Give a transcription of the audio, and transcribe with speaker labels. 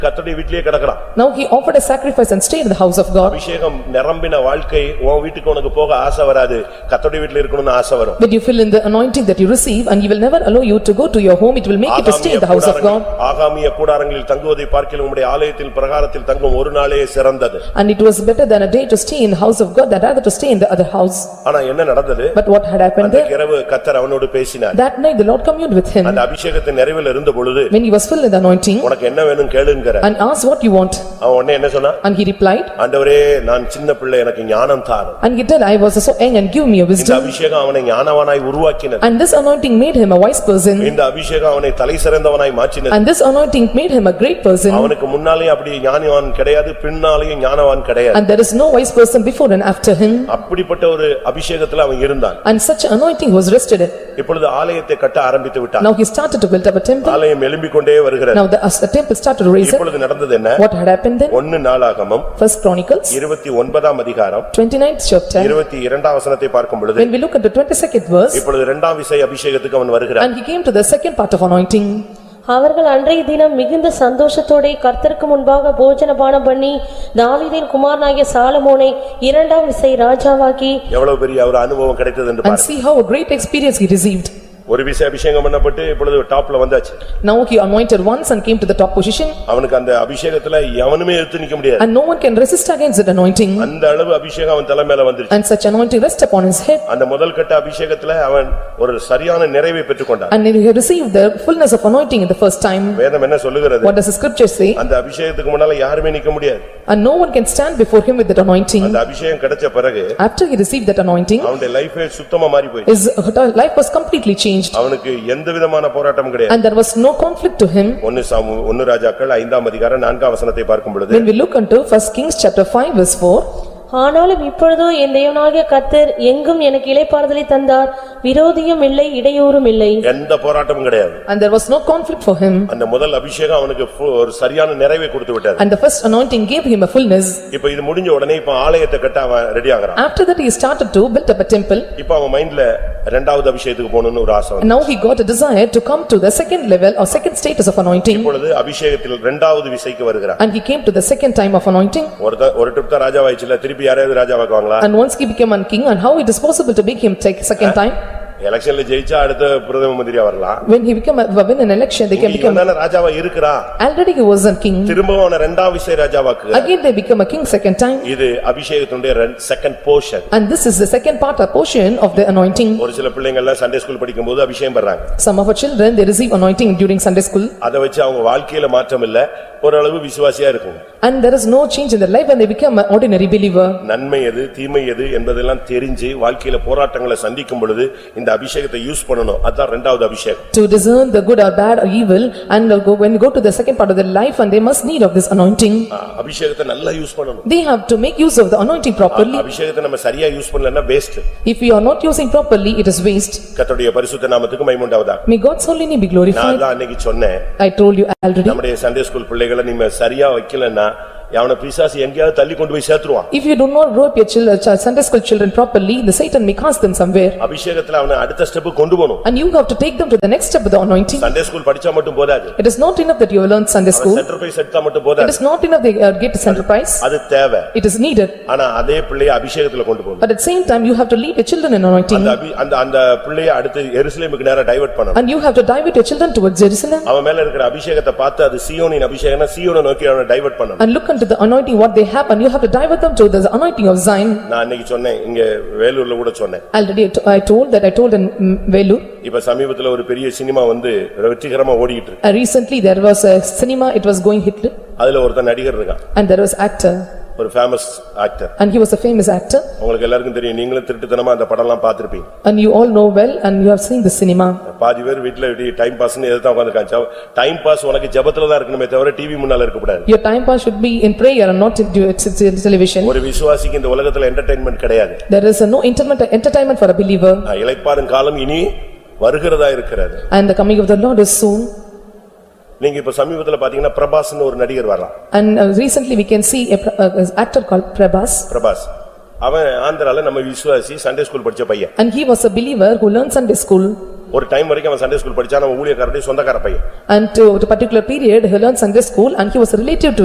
Speaker 1: கர்த்தருடைய வீட்டிலேயே கிடக்கிறான்
Speaker 2: Now he offered a sacrifice and stayed in the house of God.
Speaker 1: அபிஷேகம் நிரம்பின வாழ்க்கை உன் வீட்டுக்கு உனக்கு போக ஆசை வராது கர்த்தருடைய வீட்டில் இருக்கணும்னு ஆசை வரும்
Speaker 2: When you fill in the anointing that you receive and he will never allow you to go to your home, it will make you to stay in the house of God.
Speaker 1: ஆகாமிய கூடாரங்களில் தங்குவதை பார்க்கிலும் உம்முடைய ஆலயத்தில் பிரகாரத்தில் தங்கும் ஒரு நாளே சிறந்தது
Speaker 2: And it was better than a day to stay in the house of God than rather to stay in the other house.
Speaker 1: ஆனா என்ன நடந்தது
Speaker 2: But what had happened
Speaker 1: அந்த
Speaker 2: there?
Speaker 1: இரவு கத்தர் அவனோடு பேசினார்
Speaker 2: That night the Lord communed with him
Speaker 1: அந்த அபிஷேகத்தின் நிறைவில் இருந்த பொழுது
Speaker 2: when he was filled in the anointing
Speaker 1: உனக்கு என்ன வேணும் கேளுங்கிற
Speaker 2: and asked what you want.
Speaker 1: அவன் உடனே என்ன சொன்னா
Speaker 2: And he replied,
Speaker 1: ஆண்டவரே நான் சின்ன பிள்ளை எனக்கு ஞானம் தாரும்
Speaker 2: and he said, I was so young and give me a
Speaker 1: இந்த
Speaker 2: wisdom.
Speaker 1: அபிஷேகம் அவனை ஞானவனாய் உருவாக்கினது
Speaker 2: And this anointing made him a wise person
Speaker 1: இந்த அபிஷேகம் அவனை தலை சிறந்தவனாய் மாற்றினது
Speaker 2: and this anointing made him a great person
Speaker 1: அவனுக்கு முன்னாலேயும் அப்படி ஞானவான் கிடையாது பின்னாலேயும் ஞானவான் கிடையாது
Speaker 2: and there is no wise person before and after him
Speaker 1: அப்படிப்பட்ட ஒரு அபிஷேகத்துல அவன் இருந்தான்
Speaker 2: and such anointing was rested.
Speaker 1: இப்பொழுது ஆலயத்தை கட்ட ஆரம்பித்து விட்டான்
Speaker 2: Now he started to build up a temple.
Speaker 1: ஆலயம் எழும்பிக் கொண்டே வருகிறது
Speaker 2: Now the as the temple started to raise up.
Speaker 1: இப்பொழுது நடந்தது என்ன
Speaker 2: What had happened then?
Speaker 1: ஒன்னு நாளாகமம்
Speaker 2: First Chronicles,
Speaker 1: இருபத்தி ஒன்பதாம் அதிகாரம்
Speaker 2: 29th chapter.
Speaker 1: இருபத்தி இரண்டாம் வசனத்தை பார்க்கும் பொழுது
Speaker 2: When we look at the 22nd verse,
Speaker 1: இப்பொழுது இரண்டாம் விசை அபிஷேகத்துக்கு அவன் வருகிறான்
Speaker 2: and he came to the second part of anointing.
Speaker 3: அவர்கள் அன்றைய தினம் மிகுந்த சந்தோஷத்தோடே கர்த்தருக்கு முன்பாக போஜனபானம் பண்ணி தாவீதின் குமாரனாகிய சாலமோனை இரண்டாம் விசை ராஜாவாக்கி
Speaker 1: எவ்வளவு பெரிய ஒரு அனுபவம் கிடைத்தது என்று
Speaker 2: And
Speaker 1: பாருங்க
Speaker 2: see how a great experience he received.
Speaker 1: ஒரு விசை அபிஷேகம் பண்ணப்பட்டு இப்பொழுது டாப்ல வந்தாச்சு
Speaker 2: Now he anointed once and came to the top position,
Speaker 1: அவனுக்கு அந்த அபிஷேகத்துல எவனுமே எடுத்து நிக்க முடியாது
Speaker 2: and no one can resist against that anointing.
Speaker 1: அந்த அளவு அபிஷேகம் அவன் தலை மேல வந்துருச்சு
Speaker 2: And such anointing rest upon his head,
Speaker 1: அந்த முதல் கட்ட அபிஷேகத்துல அவன் ஒரு சரியான நிறைவை பெற்றுக்கொண்டான்
Speaker 2: and he received the fullness of anointing in the first time.
Speaker 1: வேதம் என்ன சொல்லுகிறது
Speaker 2: What does the scripture say?
Speaker 1: அந்த அபிஷேகத்துக்கு முன்னால யாருமே நிக்க முடியாது
Speaker 2: And no one can stand before him with that anointing.
Speaker 1: அந்த அபிஷேகம் கிடைச்ச பிறகு
Speaker 2: After he received that anointing,
Speaker 1: அவனுடைய லைஃபே சுத்தமா மாறி போயிடுச்சு
Speaker 2: his life was completely changed,
Speaker 1: அவனுக்கு எந்த விதமான போராட்டம் கிடையாது
Speaker 2: and there was no conflict to him.
Speaker 1: ஒன்னு சாமு ஒன்னு ராஜாக்கள் ஐந்தாம் அதிகாரம் நான்காம் வசனத்தை பார்க்கும் பொழுது
Speaker 2: When we look unto first Kings chapter five verse four,
Speaker 3: ஆனாலும் இப்பொழுதோ என் தேவனாகிய கர்த்தர் எங்கும் எனக்கு இளைப்பாறுதலை தந்தார் விரோதியும் இல்லை இடையூறும் இல்லை
Speaker 1: எந்த போராட்டமும் கிடையாது
Speaker 2: and there was no conflict for him,
Speaker 1: அந்த முதல் அபிஷேகம் அவனுக்கு ஃபு- ஒரு சரியான நிறைவை கொடுத்து விட்டாரு
Speaker 2: and the first anointing gave him a fullness.
Speaker 1: இப்ப இது முடிஞ்ச உடனே இப்ப ஆலயத்தை கட்ட அவன் ரெடி ஆகுறான்
Speaker 2: After that, he started to build up a temple,
Speaker 1: இப்ப அவன் மைண்ட்ல ரெண்டாவது அபிஷேகத்துக்கு போகணும்னு ஒரு ஆசை வந்து
Speaker 2: and now he got a desire to come to the second level or second status of anointing,
Speaker 1: இப்பொழுது அபிஷேகத்தில் ரெண்டாவது விசைக்கு வருகிறான்
Speaker 2: and he came to the second time of anointing,
Speaker 1: ஒரு த- ஒரு ட்ரிப் தான் ராஜாவாயிடுச்சுல திருப்பி யாரையாவது ராஜாவாக்குவாங்களா
Speaker 2: and once he became a king, and how it is possible to make him take second time?
Speaker 1: எலெக்ஷன்ல ஜெயிச்சா அடுத்த பிரதம மந்திரியா வரலாம்
Speaker 2: When he became, a- when an election, they can become,
Speaker 1: இவன் தானே ராஜாவா இருக்கிறா
Speaker 2: already he was a king,
Speaker 1: திரும்பவும் அவனை ரெண்டாம் விசை ராஜாவாக்குகிறார்
Speaker 2: again they become a king second time,
Speaker 1: இது அபிஷேகத்தினுடைய second portion
Speaker 2: and this is the second part or portion of the anointing.
Speaker 1: ஒரு சில பிள்ளைங்க எல்லாம் சண்டே ஸ்கூல் படிக்கும்போது அபிஷேகம் பண்றாங்க
Speaker 2: Some of our children, they receive anointing during Sunday school
Speaker 1: அதை வச்சு அவங்க வாழ்க்கையில மாற்றம் இல்ல ஓரளவு விசுவாசியா இருக்கும்
Speaker 2: and there is no change in their life and they become an ordinary believer.
Speaker 1: நன்மை எது தீமை எது என்பதெல்லாம் தெரிஞ்சு வாழ்க்கையில போராட்டங்களை சந்திக்கும் பொழுது இந்த அபிஷேகத்தை யூஸ் பண்ணணும் அதான் ரெண்டாவது அபிஷேகம்
Speaker 2: To discern the good or bad or evil and they'll go- when they go to the second part of their life and they must need of this anointing.
Speaker 1: ஆ, அபிஷேகத்தை நல்லா யூஸ் பண்ணணும்
Speaker 2: They have to make use of the anointing properly.
Speaker 1: அபிஷேகத்தை நம்ம சரியா use பண்ணலன்னா waste
Speaker 2: If we are not using properly, it is waste.
Speaker 1: கர்த்தருடைய பரிசுத்த நாமத்துக்கு மைமுண்டாவதா
Speaker 2: May God's holy name be
Speaker 1: நான்
Speaker 2: glorified.
Speaker 1: தான் அன்னைக்கு சொன்னேன்
Speaker 2: I told you already.
Speaker 1: நம்முடைய சண்டே ஸ்கூல் பிள்ளைகளை நீங்க சரியா வைக்கலன்னா அவன பிசாசு எங்கேயாவது தள்ளி கொண்டு போய் சேர்த்துருவான்
Speaker 2: If you do not grow up your children, Sunday school children properly, the Satan may cast them somewhere.
Speaker 1: அபிஷேகத்துல அவனை அடுத்த ஸ்டெப் கொண்டு போகணும்
Speaker 2: And you have to take them to the next step of the anointing.
Speaker 1: Sunday school படிச்சா மட்டும் போதாது
Speaker 2: It is not enough that you have learned Sunday school.
Speaker 1: Centre போய் செட்டா மட்டும்
Speaker 2: It
Speaker 1: போதாது
Speaker 2: is not enough they uh, get a center prize.
Speaker 1: அது தேவை
Speaker 2: It is needed.
Speaker 1: ஆனா அதே பிள்ளையை அபிஷேகத்துல கொண்டு போகணும்
Speaker 2: But at the same time, you have to lead your children in anointing
Speaker 1: அந்த அபி- அந்த அந்த பிள்ளைய அடுத்து எருசலேமுக்கு நேரா டைவர்ட் பண்ணணும்
Speaker 2: and you have to divert your children towards Jerusalem
Speaker 1: அவன் மேல இருக்கிற அபிஷேகத்தை பார்த்து அது சீயோனின் அபிஷேகம்னா சீயோனை நோக்கி அவனை டைவர்ட் பண்ணணும்
Speaker 2: and look unto the anointing what they have and you have to divert them to the anointing of Zion.
Speaker 1: நான் அன்னைக்கு சொன்னேன் இங்க வேலூர்ல கூட சொன்னேன்
Speaker 2: Already I to- I told that I told in mm, Vellore,
Speaker 1: இப்ப சமீபத்துல ஒரு பெரிய சினிமா வந்து வெற்றிகரமா ஓடிக்கிட்டு இருக்கு
Speaker 2: uh, recently there was a cinema, it was going Hitler
Speaker 1: அதுல ஒருத்தன் நடிகர் இருக்கான்
Speaker 2: and there was actor
Speaker 1: ஒரு famous actor
Speaker 2: and he was a famous actor
Speaker 1: உங்களுக்கு எல்லாருக்கும் தெரியும் நீங்களும் திருட்டுத்தனமா அந்த படம்லாம் பார்த்திருப்பீங்க
Speaker 2: and you all know well and you have seen the cinema.
Speaker 1: பாதி பேர் வீட்டுல டைம் பாஸ்னு எதுதான் உட்காந்துருக்காங்க டைம் பாஸ் உனக்கு ஜெபத்துல தான் இருக்கணுமே தவிர டிவி முன்னால இருக்கக்கூடாது
Speaker 2: Your time pass should be in prayer and not in due- t- t- television.
Speaker 1: ஒரு விசுவாசிக்கு இந்த உலகத்துல என்டர்டைன்மெண்ட் கிடையாது
Speaker 2: There is uh, no entertainment entertainment for a believer
Speaker 1: நான் இளைப்பாறும் காலம் இனி வருகிறதா இருக்கிறது
Speaker 2: and the coming of the Lord is soon.
Speaker 1: நீங்க இப்ப சமீபத்துல பாத்தீங்கன்னா பிரபாஸ்னு ஒரு நடிகர் வரலாம்
Speaker 2: And uh, recently we can see a pr- uh, uh, actor called Prabhas
Speaker 1: Prabhas அவன் ஆந்திரால நம்ம விசுவாசி சண்டே ஸ்கூல் படிச்ச பையன்
Speaker 2: and he was a believer who learned Sunday school
Speaker 1: ஒரு டைம் வரைக்கும் அவன் சண்டே ஸ்கூல் படிச்சான் அவன் ஊழியக்காரடி சொந்தக்கார பையன்
Speaker 2: And to to particular period, he learned Sunday school and he was relative to